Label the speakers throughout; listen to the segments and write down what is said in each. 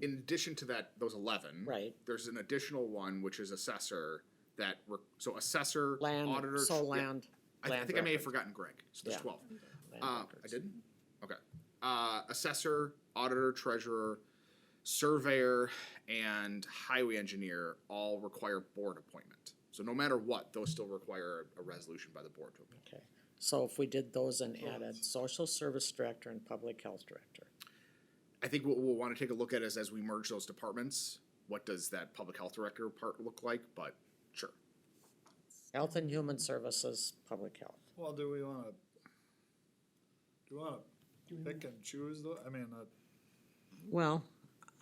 Speaker 1: in addition to that, those eleven.
Speaker 2: Right.
Speaker 1: There's an additional one, which is assessor that, re- so assessor, auditor.
Speaker 2: Land, sole
Speaker 1: yeah.
Speaker 2: land.
Speaker 1: I, th- I
Speaker 2: land
Speaker 1: think I may have
Speaker 2: records,
Speaker 1: forgotten Greg, so there's
Speaker 2: Yeah.
Speaker 1: twelve.
Speaker 2: land
Speaker 1: Uh, I
Speaker 2: records.
Speaker 1: didn't? Okay. Uh, assessor, auditor, treasurer, surveyor, and highway engineer all require board appointment. So no matter what, those still require a resolution by the board to appoint.
Speaker 2: Okay, so if we did those and added social service director and public health director,
Speaker 1: I think what we'll wanna take a look at is as we merge those departments, what does that public health director part look like, but sure.
Speaker 2: health and human services, public health.
Speaker 3: Well, do we wanna, do we wanna pick and choose though? I mean, uh,
Speaker 2: Well,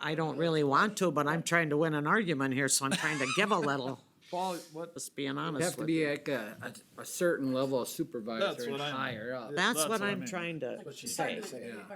Speaker 2: I don't really want to, but I'm trying to win an argument here, so I'm trying to give a little,
Speaker 3: Paul, what?
Speaker 2: just being
Speaker 4: Have
Speaker 2: honest
Speaker 4: to
Speaker 2: with you.
Speaker 4: be like a, a, a certain level of supervisor and
Speaker 3: what I'm-
Speaker 4: higher up.
Speaker 2: That's what
Speaker 3: I
Speaker 2: I'm
Speaker 3: mean.
Speaker 2: trying to say.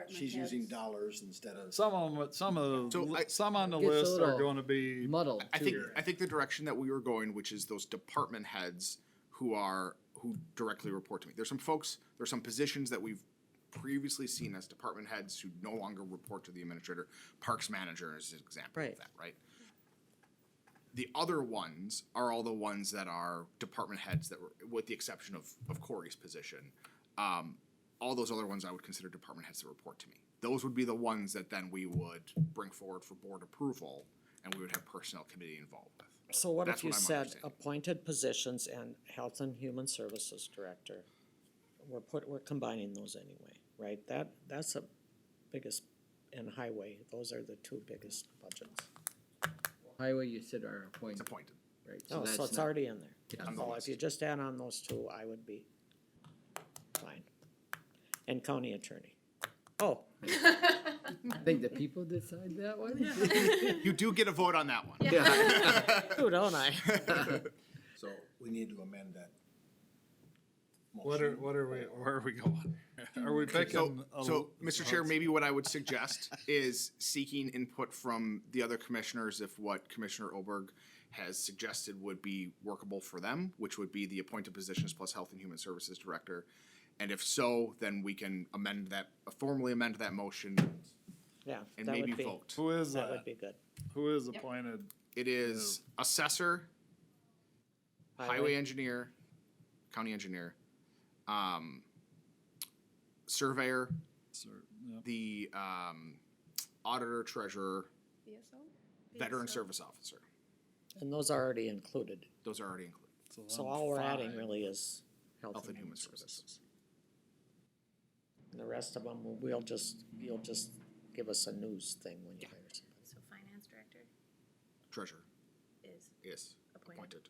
Speaker 5: She's using dollars instead of.
Speaker 3: Some of them, some of, the
Speaker 1: So
Speaker 3: li-
Speaker 1: I-
Speaker 3: some on the
Speaker 4: Gets a
Speaker 3: list are
Speaker 4: little
Speaker 3: gonna be,
Speaker 4: Muddled
Speaker 1: I think
Speaker 4: too.
Speaker 1: I think the direction that we were going, which is those department heads who are who directly report to me. There's some folks, there's some positions that we've previously seen as department heads who no longer report to the administrator. Parks manager is an example
Speaker 2: Right.
Speaker 1: of that, right? The other ones are all the ones that are department heads that were, with the exception of of Corey's position. Um, all those other ones I would consider department heads that report to me. Those would be the ones that then we would bring forward for board approval and we would have personnel committee involved with.
Speaker 2: So what if
Speaker 1: That's
Speaker 2: you
Speaker 1: what I'm
Speaker 2: said
Speaker 1: understanding.
Speaker 2: appointed positions and health and human services director? We're put, we're combining those anyway, right? That, that's the biggest, and highway, those are the two biggest budgets.
Speaker 4: Highway, you said are appointed,
Speaker 1: Appointed.
Speaker 4: right?
Speaker 2: Oh,
Speaker 4: that's
Speaker 2: so it's
Speaker 4: not-
Speaker 2: already in there.
Speaker 4: Yeah. On the
Speaker 2: So if you just add on those two, I would be fine. And county attorney. Oh,
Speaker 4: I think the people decide that one?
Speaker 1: You do get a vote on that one.
Speaker 2: who don't I?
Speaker 5: So we need to amend that.
Speaker 3: what are, what are we, where are we going? Are we picking?
Speaker 1: So,
Speaker 3: a
Speaker 1: so,
Speaker 3: l- uh,
Speaker 1: Mr. Chair, maybe what I would suggest is seeking input from the other commissioners if what Commissioner Oberg has suggested would be workable for them, which would be the appointed positions plus Health and Human Services Director. And if so, then we can amend that, formally amend that motion
Speaker 2: Yeah,
Speaker 1: and
Speaker 2: that
Speaker 1: maybe
Speaker 2: would be,
Speaker 1: vote.
Speaker 3: Who is
Speaker 2: that
Speaker 3: that?
Speaker 2: would be good.
Speaker 3: Who is appointed?
Speaker 1: It is assessor, highway engineer, county engineer, um, surveyor,
Speaker 3: Sir, yeah.
Speaker 1: the um, auditor, treasurer,
Speaker 6: VSO?
Speaker 1: veteran service officer.
Speaker 2: And those are already included.
Speaker 1: Those are already included.
Speaker 2: So
Speaker 3: then
Speaker 2: all we're adding
Speaker 3: five.
Speaker 2: really is
Speaker 1: Health and Human Services.
Speaker 2: And the rest of them, we'll just, you'll just give us a news thing when you hire somebody.
Speaker 6: So finance director
Speaker 1: Treasurer
Speaker 6: is
Speaker 1: is
Speaker 6: Appointed.
Speaker 1: appointed.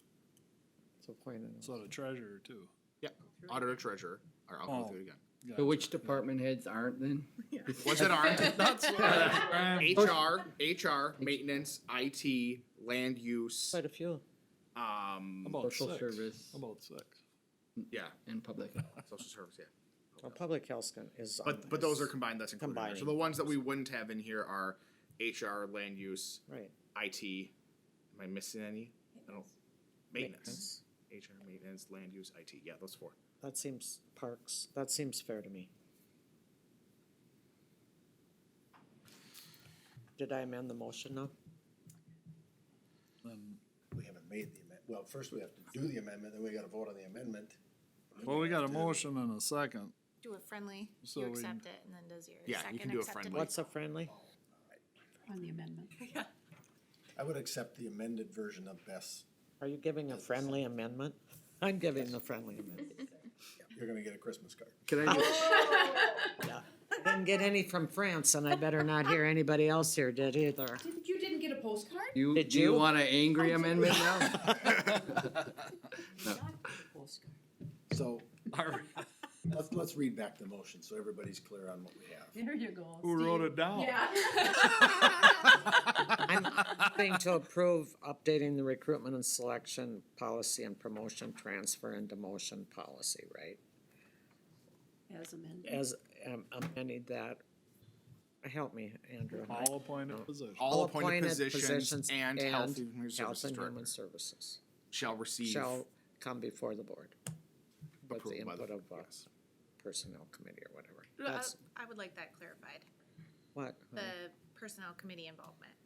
Speaker 2: So point it out.
Speaker 3: So the treasurer too.
Speaker 1: Yeah, auditor, treasurer. Or I'll go
Speaker 3: Oh.
Speaker 1: through it again.
Speaker 3: Gotcha.
Speaker 4: So which department heads aren't then?
Speaker 1: Ones that aren't,
Speaker 3: That's what I'm-
Speaker 1: HR, HR, maintenance, IT, land use,
Speaker 2: Quite a few.
Speaker 1: um,
Speaker 3: About
Speaker 4: Social
Speaker 3: six.
Speaker 4: service.
Speaker 3: About six.
Speaker 1: yeah,
Speaker 4: In public.
Speaker 1: social service, yeah.
Speaker 2: Well, public health can- is. on
Speaker 1: But, but those are
Speaker 2: this.
Speaker 1: combined, that's included. in there. So
Speaker 2: Combining.
Speaker 1: the ones that we wouldn't have in here are HR, land use,
Speaker 2: Right.
Speaker 1: IT. Am I missing any? I don't, maintenance, HR, maintenance, land use, IT. Yeah, those four.
Speaker 2: That seems, parks, that seems fair to me. Did I amend the motion now?
Speaker 3: Then-
Speaker 5: We haven't made the amendment. Well, first we have to do the amendment, then we gotta vote on the amendment.
Speaker 3: Well, we got a motion and a second.
Speaker 6: Do a friendly,
Speaker 3: So
Speaker 6: you
Speaker 3: we-
Speaker 6: accept it and then does your
Speaker 1: Yeah, you
Speaker 6: second
Speaker 1: can do a
Speaker 6: accept it?
Speaker 1: friendly.
Speaker 2: What's a friendly?
Speaker 7: On the amendment.
Speaker 5: I would accept the amended version of Beth's.
Speaker 2: Are you giving a friendly amendment? I'm giving the friendly amendment.
Speaker 5: You're gonna get a Christmas card.
Speaker 4: Can I just,
Speaker 2: Didn't get any from France and I better not hear anybody else here did either.
Speaker 7: You didn't get a postcard?
Speaker 4: you,
Speaker 2: Did
Speaker 4: do you
Speaker 2: you?
Speaker 4: want an angry amendment now?
Speaker 5: So, let's, let's read back the motion so everybody's clear on what we have.
Speaker 7: There you go.
Speaker 3: Who wrote
Speaker 7: Steve.
Speaker 3: it down?
Speaker 7: Yeah.
Speaker 2: I'm going to approve updating the recruitment and selection policy and promotion, transfer and demotion policy, right?
Speaker 7: As amended.
Speaker 2: As, um, amended that, help me, Andrew.
Speaker 3: All appointed positions.
Speaker 1: All appointed positions and health and human
Speaker 2: Health
Speaker 1: services
Speaker 2: and Human
Speaker 1: director
Speaker 2: Services
Speaker 1: shall receive
Speaker 2: shall come before the board with the
Speaker 1: approval by the-
Speaker 2: input of uh,
Speaker 1: yes.
Speaker 2: Personnel Committee or whatever.
Speaker 6: Uh,
Speaker 2: That's
Speaker 6: I would like that clarified,
Speaker 2: what,
Speaker 6: the personnel committee involvement.